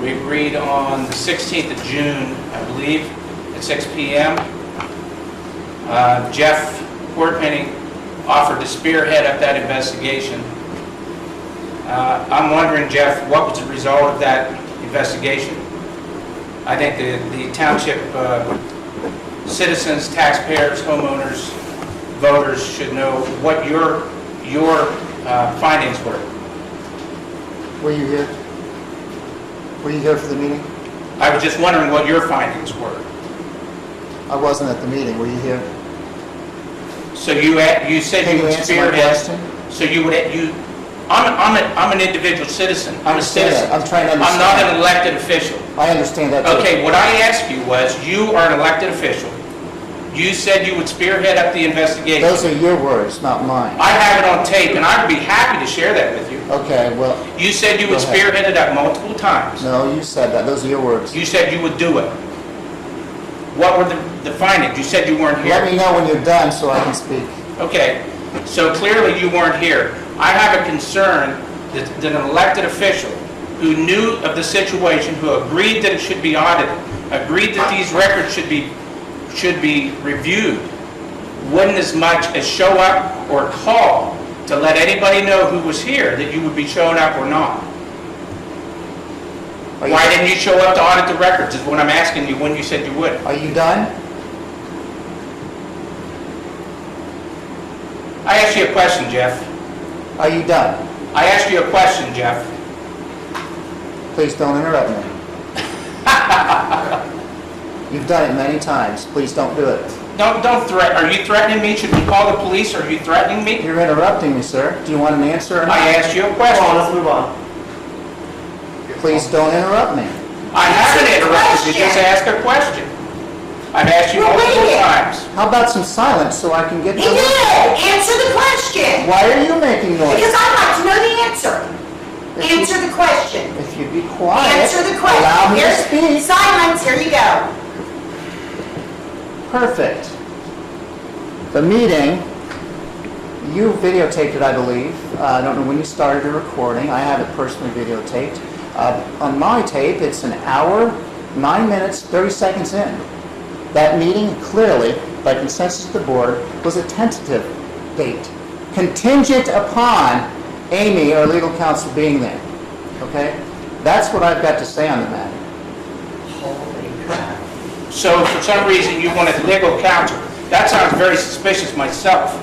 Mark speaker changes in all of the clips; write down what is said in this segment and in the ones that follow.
Speaker 1: We agreed on the 16th of June, I believe, at 6 PM. Uh, Jeff Portman offered to spearhead up that investigation. Uh, I'm wondering, Jeff, what was the result of that investigation? I think the the township uh, citizens, taxpayers, homeowners, voters should know what your, your uh, findings were.
Speaker 2: Were you here? Were you here for the meeting?
Speaker 1: I was just wondering what your findings were.
Speaker 2: I wasn't at the meeting, were you here?
Speaker 1: So you, had- you said
Speaker 2: Can
Speaker 1: you
Speaker 2: you
Speaker 1: would
Speaker 2: answer my
Speaker 1: spearhead,
Speaker 2: question?
Speaker 1: so you would, you, I'm, I'm, a- I'm an individual citizen, I'm a
Speaker 2: understand that.
Speaker 1: citizen.
Speaker 2: I'm trying to
Speaker 1: I'm not
Speaker 2: understand.
Speaker 1: an elected official.
Speaker 2: I understand that. too.
Speaker 1: Okay, what I asked you was, you are an elected official. You said you would spearhead up the
Speaker 2: Those
Speaker 1: investigation.
Speaker 2: are your words, not mine.
Speaker 1: I have it on tape, and I'd be happy to share that with you.
Speaker 2: Okay, well,
Speaker 1: You said you would
Speaker 2: Go ahead.
Speaker 1: spearhead it up multiple times.
Speaker 2: no, you said that, those are your words.
Speaker 1: You said you would do it. What were the- the findings? You said you weren't
Speaker 2: Let
Speaker 1: here.
Speaker 2: me know when you're done so I can speak.
Speaker 1: Okay, so clearly you weren't here. I have a concern that that an elected official who knew of the situation, who agreed that it should be audited, agreed that these records should be, should be reviewed, wouldn't as much as show up or call to let anybody know who was here, that you would be showing up or not.
Speaker 2: Are you-
Speaker 1: Why didn't you show up to audit the records, is what I'm asking you, when you said you would.
Speaker 2: Are you done?
Speaker 1: I asked you a question, Jeff.
Speaker 2: Are you done?
Speaker 1: I asked you a question, Jeff.
Speaker 2: Please don't interrupt me. You've done it many times, please don't do it.
Speaker 1: Don't, don't threat, are you threatening me? Should we call the police? Are you threatening me?
Speaker 2: You're interrupting me, sir. Do you want an answer or
Speaker 1: I
Speaker 2: not?
Speaker 1: asked you a
Speaker 3: Come on,
Speaker 1: question.
Speaker 3: let's move on.
Speaker 2: Please don't interrupt me.
Speaker 1: I haven't interrupted you, just ask a question. I've asked you
Speaker 4: Well, wait a
Speaker 1: multiple
Speaker 4: minute.
Speaker 1: times.
Speaker 2: How about some silence so I can get to...
Speaker 4: He did! Answer the question!
Speaker 2: Why are you making noise?
Speaker 4: Because I'd like to know the answer.
Speaker 2: If you-
Speaker 4: Answer the question.
Speaker 2: If you'd be quiet.
Speaker 4: Answer the question.
Speaker 2: Allow me to
Speaker 4: Here's-
Speaker 2: speak.
Speaker 4: Silence, here you go.
Speaker 2: Perfect. The meeting, you videotaped it, I believe. Uh, I don't know when you started your recording. I have it personally videotaped. Uh, On my tape, it's an hour, nine minutes, 30 seconds in. That meeting clearly, by consensus of the board, was a tentative date, contingent upon Amy or legal counsel being there. Okay? That's what I've got to say on the matter.
Speaker 4: Holy crap.
Speaker 1: So for some reason, you wanted legal counsel. That sounds very suspicious myself.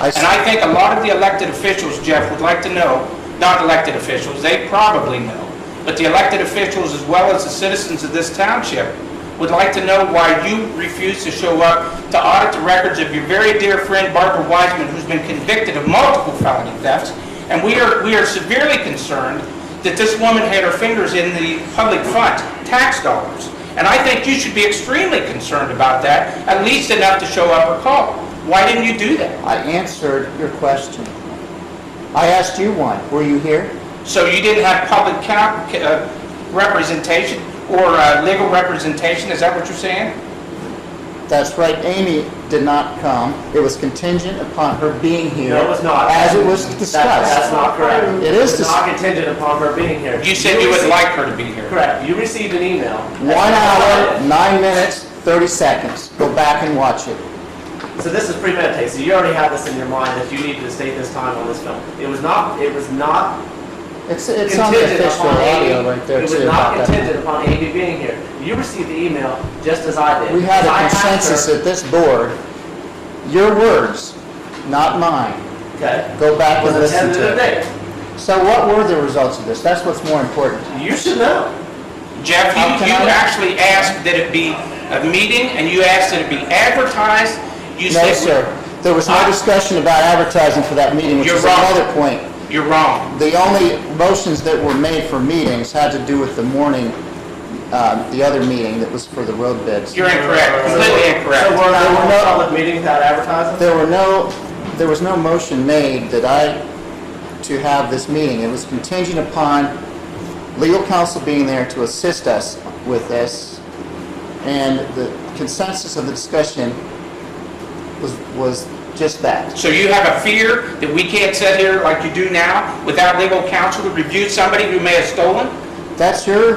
Speaker 2: I
Speaker 1: And I think a lot of the elected officials, Jeff, would like to know, not elected officials, they probably know, but the elected officials as well as the citizens of this township would like to know why you refuse to show up to audit the records of your very dear friend Barbara Wiseman, who's been convicted of multiple felony thefts. And we are, we are severely concerned that this woman had her fingers in the public fund, tax dollars. And I think you should be extremely concerned about that, at least enough to show up or call. Why didn't you do that?
Speaker 2: I answered your question. I asked you one. Were you here?
Speaker 1: So you didn't have public coun- uh, representation or uh, legal representation, is that what you're saying?
Speaker 2: That's right, Amy did not come. It was contingent upon her being here.
Speaker 3: No, it was not.
Speaker 2: As it was
Speaker 3: That- That's
Speaker 2: discussed.
Speaker 3: not correct.
Speaker 2: It is
Speaker 3: It's
Speaker 2: dis-
Speaker 3: not contingent upon her being here.
Speaker 1: You said you would
Speaker 3: received-
Speaker 1: like her to be here.
Speaker 3: Correct. You received an email.
Speaker 2: One hour, nine minutes, 30 seconds. Go back and watch it.
Speaker 3: So this is premeditated. So you already had this in your mind that you needed to state this time on this film. It was not, it was not
Speaker 2: It's, it's on the
Speaker 3: contingent
Speaker 2: official
Speaker 3: upon
Speaker 2: audio
Speaker 3: Amy.
Speaker 2: right there
Speaker 3: It was
Speaker 2: too.
Speaker 3: not
Speaker 2: about that.
Speaker 3: contingent upon Amy being here. You received the email just as I did.
Speaker 2: We had
Speaker 3: I
Speaker 2: a
Speaker 3: asked her-
Speaker 2: consensus at this board. Your words, not mine.
Speaker 3: Okay.
Speaker 2: Go back
Speaker 3: It was
Speaker 2: and
Speaker 3: a
Speaker 2: listen
Speaker 3: tentative
Speaker 2: to it.
Speaker 3: date.
Speaker 2: So what were the results of this? That's what's more important.
Speaker 3: You should know.
Speaker 1: Jeff, you
Speaker 2: How can
Speaker 1: you
Speaker 2: I-
Speaker 1: actually asked that it be a meeting, and you asked that it be advertised. You
Speaker 2: No,
Speaker 1: said-
Speaker 2: sir. There was no
Speaker 1: I-
Speaker 2: discussion about advertising for that meeting,
Speaker 1: Uh,
Speaker 2: which
Speaker 1: You're
Speaker 2: is
Speaker 1: wrong.
Speaker 2: another point.
Speaker 1: You're wrong.
Speaker 2: The only motions that were made for meetings had to do with the morning, uh, the other meeting that was for the road bids.
Speaker 1: You're incorrect, completely
Speaker 3: So
Speaker 1: incorrect.
Speaker 3: we're not
Speaker 2: There were
Speaker 3: having
Speaker 2: no-
Speaker 3: a public meeting without advertising?
Speaker 2: There were no, there was no motion made that I, to have this meeting. It was contingent upon legal counsel being there to assist us with this. And the consensus of the discussion was, was just that.
Speaker 1: So you have a fear that we can't sit here like you do now without legal counsel to review somebody who may have stolen?
Speaker 2: That's your